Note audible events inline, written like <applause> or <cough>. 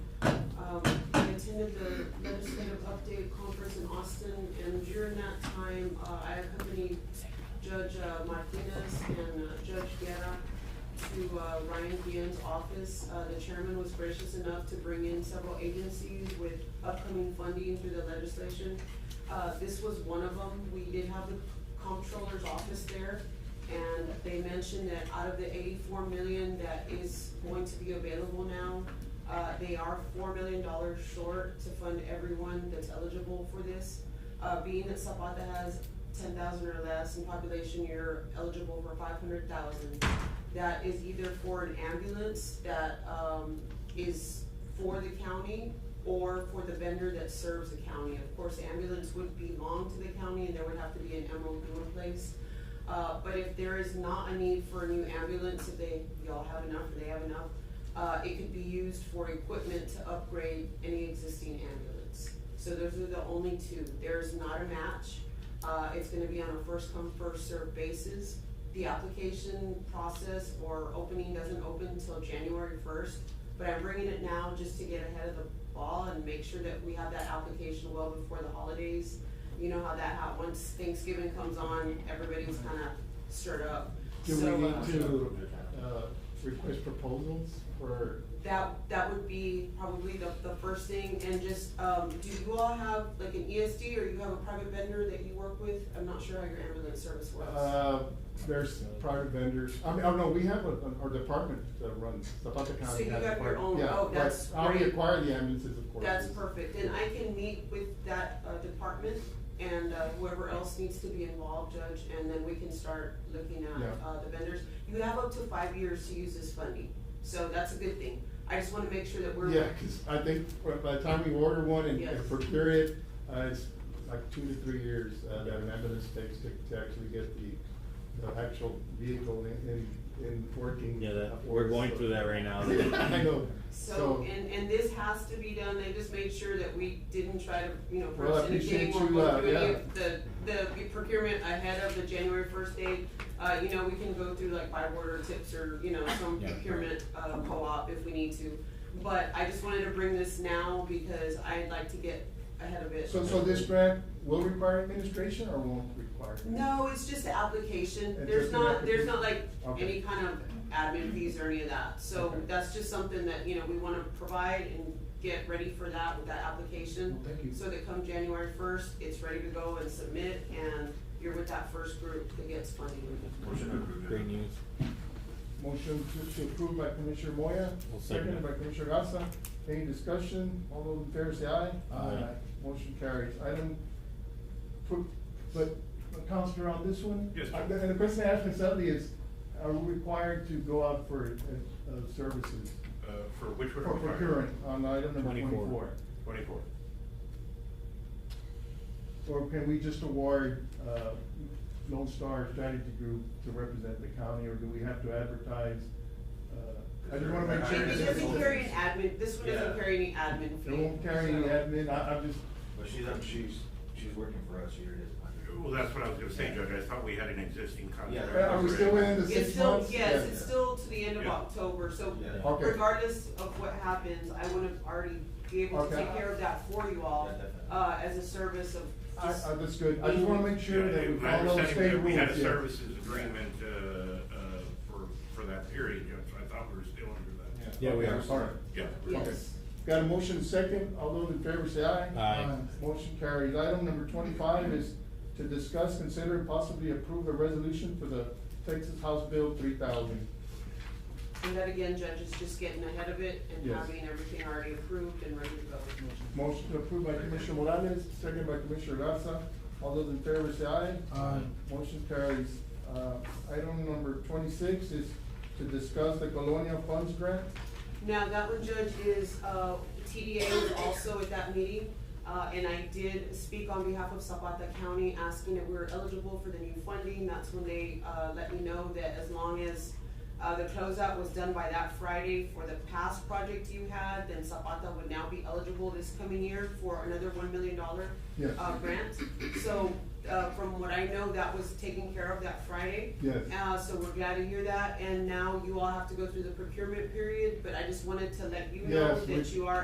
Um, attended the legislative update conference in Austin, and during that time, uh, I accompanied Judge uh, Martinez and uh, Judge Guerra to, uh, Ryan Guillen's office. Uh, the chairman was gracious enough to bring in several agencies with upcoming funding through the legislation. Uh, this was one of them. We did have the comptroller's office there, and they mentioned that out of the eighty-four million that is going to be available now, uh, they are four million dollars short to fund everyone that's eligible for this. Uh, being that Zapata has ten thousand or less in population, you're eligible for five hundred thousand. That is either for an ambulance that, um, is for the county or for the vendor that serves the county. Of course, ambulance would belong to the county and there would have to be an MOU in place. Uh, but if there is not a need for a new ambulance, if they, y'all have enough, if they have enough, uh, it could be used for equipment to upgrade any existing ambulance. So those are the only two. There's not a match. Uh, it's gonna be on a first come, first served basis. The application process or opening doesn't open until January first, but I'm bringing it now just to get ahead of the ball and make sure that we have that application well before the holidays. You know how that, how, once Thanksgiving comes on, everybody's kinda stirred up. Do we So, need uh, to, uh, request proposals for, That, that would be probably the, the first thing, and just, um, do you all have like an ESD or you have a private vendor that you work with? I'm not sure how your ambulance service works. uh, there's private vendors, I mean, oh no, we have a, an- our department that runs, Zapata So County you has a have your department. own- Yeah, oh, but that's How we great. acquire the ambulances, of course. That's is- perfect, and I can meet with that, uh, department and uh, whoever else needs to be involved, Judge, and then we can start looking Yeah. at, uh, the vendors. You have up to five years to use this funding, so that's a good thing. I just wanna make sure that we're. Yeah, cause I think by- by the time we order one and- Yes. and procure it, uh, it's like two to three years, uh, that an ambulance takes to, to actually get the, the actual vehicle in, in, in working. Yeah, that- for we're us, going so- through that right <laughs> now. I know, So, and, and this has to be done, they just made sure that we didn't try to, you know, Well, I force anything appreciate or you, go uh, through any yeah. of the, the procurement ahead of the January first date. Uh, you know, we can go through like by order tips or, you know, some Yeah. procurement, uh, co-op if we need to. But I just wanted to bring this now because I'd like to get ahead of it. So, so this grant will require administration or won't require? No, it's just the application, It's there's just the not, there's application. not like Okay. any kind of admin fees or any of that, so Okay. that's just something that, you know, we wanna provide and get ready for that with that application. Well, thank you. So that come January first, it's ready to go and submit, and you're with that first group that gets funding. Motion to approve. Great news. Motion to, to approve by Commissioner Moya, I'll second seconded it. by Commissioner Gasa. Any discussion? All those in favor say aye. Aye. Motion carries. Item, pro- but, but Counselor, on this one? Yes, sir. I- And the question I asked myself is, are we required to go out for, uh, uh, services? Uh, for which one? For are we hiring? procuring on item number Twenty-four. twenty-four? Twenty-four. Or can we just award, uh, Lone Star Strategy Group to represent the county, or do we have to advertise? uh, I just wanna make sure. It that- doesn't carry an admin, this one doesn't Yeah. carry any admin It fee. won't carry any so- admin, I, I'm just, But she's, up- she's, she's working for us here, it is. Well, that's what I was gonna say, Judge, I thought we had an existing contract. Yeah. are we still within the It's six still, months? yes, Yeah. it's still to the end of Yeah. October, so Yeah. Okay. regardless of what happens, I would have already be able to Okay. take care of that for you all, Yeah, definitely. uh, as a service of I, just, I, that's good, I just wanna make sure that we Yeah, my follow the understanding state that rules, We had a yeah. services agreement, uh, uh, for, for that period, Judge, I thought we were still under that. Yeah, we Okay, are. All right. Yeah. yes. Got a motion second, all those in favor say aye. Aye. Motion carries. Item number twenty-five is to discuss, consider, and possibly approve a resolution for the Texas House Bill three thousand. And that again, Judge, is just getting ahead of it and Yes. having everything already approved and ready to go. Motion approved by Commissioner Morales, second by Commissioner Garza. All those in favor say aye. Aye. Motion carries. Uh, item number twenty-six is to discuss the Colonial Funds Grant. Now, that one, Judge, is, uh, TDA was also at that meeting, uh, and I did speak on behalf of Zapata County, asking if we were eligible for the new funding. That's when they, uh, let me know that as long as, uh, the closeout was done by that Friday for the past project you had, then Zapata would now be eligible this coming year for another one million dollar Yes. uh, grant. So, uh, from what I know, that was taken care of that Friday. Yes. Uh, so we're glad to hear that, and now you all have to go through the procurement period, but I just wanted to let you know Yes, we- that you are